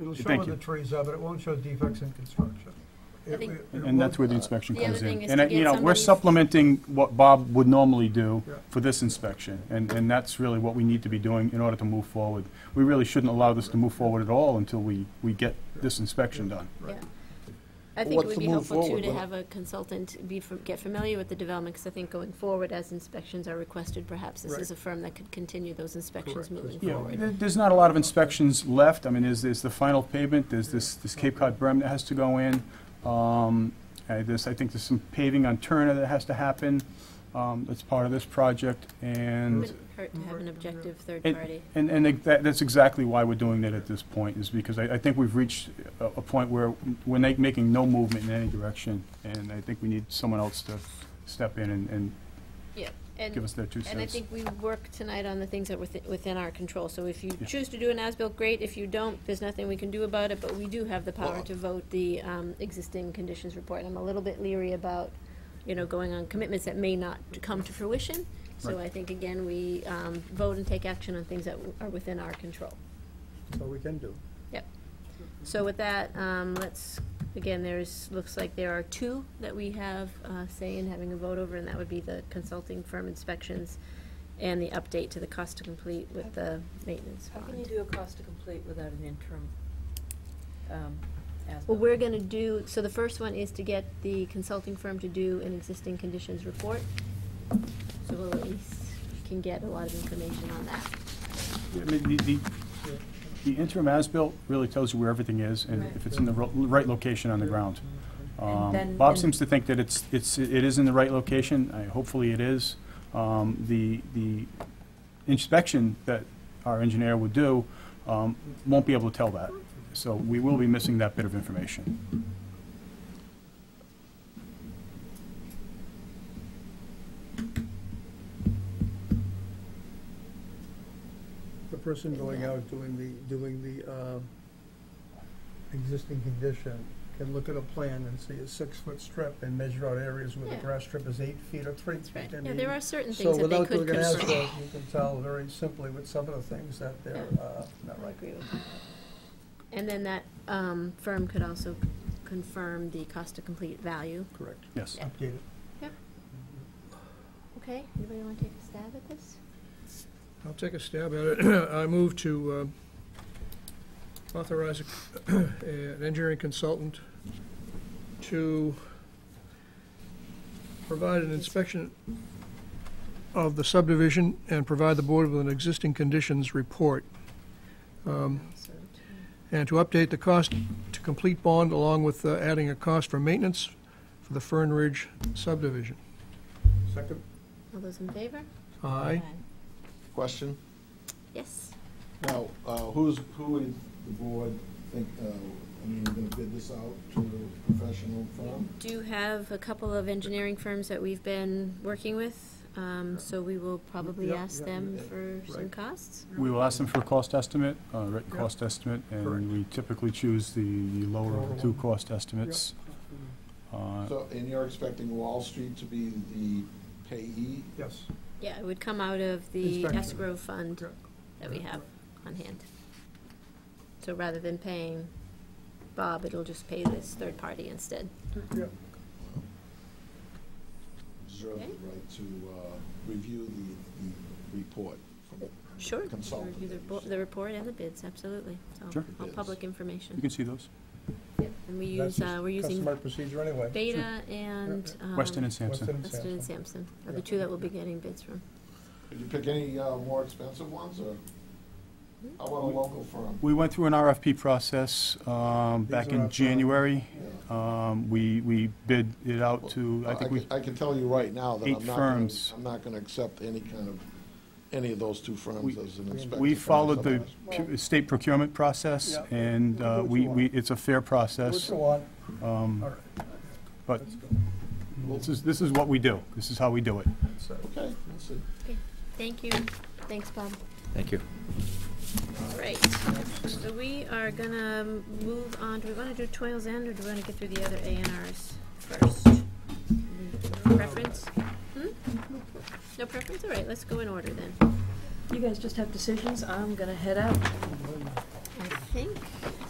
It'll show Thank the you. trees are, but it won't show defects in construction. I It- think- it- it And that's where won't- the inspection Uh, The comes other thing in. is And, to uh, you get know, we're somebody's- supplementing what Bob would normally do Yeah. for this inspection, and, and that's really what we need to be doing in order to move forward. We really shouldn't allow this to move forward at all until we, we get this inspection done. Right. I think it What's would the be move helpful too forward to with it? have a consultant be, fam- get familiar with the development, because I think going forward, as inspections are requested, perhaps this Right. is a firm that could continue those inspections Correct. moving Yeah, forward. there- there's not a lot of inspections left. I mean, there's, there's the final pavement, there's this, this Cape Cod berm that has to go in. Um, uh, There's, I think there's some paving on Turner that has to happen. Um, That's part of this project, and. Wouldn't hurt to have an objective third And- party. And, and it- that, that's exactly why we're doing that at this point, is because I, I think we've reached a, a point where we're na- making no movement in any direction, and I think we need someone else to step in and, and Yeah, give and, us their two cents. and I think we work tonight on the things that were thi- within our control. So if you Yeah. choose to do an as-built, great. If you don't, there's nothing we can do about it, but we do have the power Well- to vote the um, existing conditions report. And I'm a little bit leery about, you know, going on commitments that may not come to fruition. So Right. I think, again, we um, vote and take action on things that w- are within our control. That's all we can do. So with that, um, let's, again, there's, looks like there are two that we have, uh, say in having a vote over, and that would be the consulting firm inspections and the update to the cost to complete with the maintenance How can you bond. do a cost to complete without an interim, um, as? Well, we're gonna do, so the first one is to get the consulting firm to do an existing conditions report. So we'll at least can get a lot of information on that. I mean, the, the- the interim as-built really tells you where everything is, and Right. if it's in the ro- right location on the ground. Um, then- Bob and- seems to think that it's, it's, it is in the right location, I, hopefully it is. Um, the, the inspection that our engineer would do, um, won't be able to tell that. So we will be missing that bit of information. The person going out doing the, doing the, uh, Existing condition, can look at a plan and see a six-foot strip and measure out areas where the Yeah. grass strip is eight feet or three That's feet. right. I Yeah, mean, there are certain things that they So could without doing an control. asphalt, you can tell very simply with some of the things that they're uh, not I right. agree with that. And then that um, firm could also confirm the cost to complete value. Correct. Yes. Updated. Okay, anybody want to take a stab at this? I'll take a stab at it. I move to uh, authorize a- an engineering consultant to provide an inspection of the subdivision and provide the board with an existing conditions report, um, So, and to update the cost to complete bond along with uh, adding a cost for maintenance for the Fern Ridge subdivision. Second, All those in favor? Aye. question. Yes. Now, uh, who's, who would the board think, uh, I mean, we're gonna bid this out to a professional firm? Do you have a couple of engineering firms that we've been working with, um, so we will probably Yeah, ask yeah, them yeah. for some Right. costs. We will ask them for a cost estimate, a written Yeah. cost estimate, Correct. and we typically choose the lower Lower of the two one. cost estimates. Uh, So, and you're expecting Wall Street to be the payee? yes. Yeah, it would come out of the Inspection. escrow fund Yeah. that we have on hand. So rather than paying Bob, it'll just pay this third party instead. Yeah. Reserve Okay. the right to, uh, review the, the report from Sure. you Consultant, Review the you report, said. the report and the bids, absolutely. So Sure. All Bids. public You information. can see those, And we That's use, just uh, we're using Customary procedure anyway. Beta and, um, Weston and Sampson. Weston and Weston and Sampson. Sampson are the Yeah. two that we'll be getting bids from. Did you pick any, uh, more expensive ones, or how about a local firm? We went through an RFP process These um, back are our in products. January. Yeah. Um, We, we bid it out to, I Well, think can- we, I can tell you right now that Eight I'm not gonna, firms. I'm not gonna accept any kind of, any of those two firms We- as an inspector. we firm or followed the something pu- state procurement process, Yeah. and Do uh, what we, you want. we, it's a fair Do process, what you want, um, all right, but let's go. this is, this is what we do. This is how we do it. So- else. Okay, we'll see. Thank you. Thanks, Bob. Thank you. Right. So we are gonna move on. Do we wanna do Toils End or do we wanna get through the other A and Rs first? Preference? Hmm? No preference? All right, let's go in order then. You guys just have decisions, I'm gonna head out. I think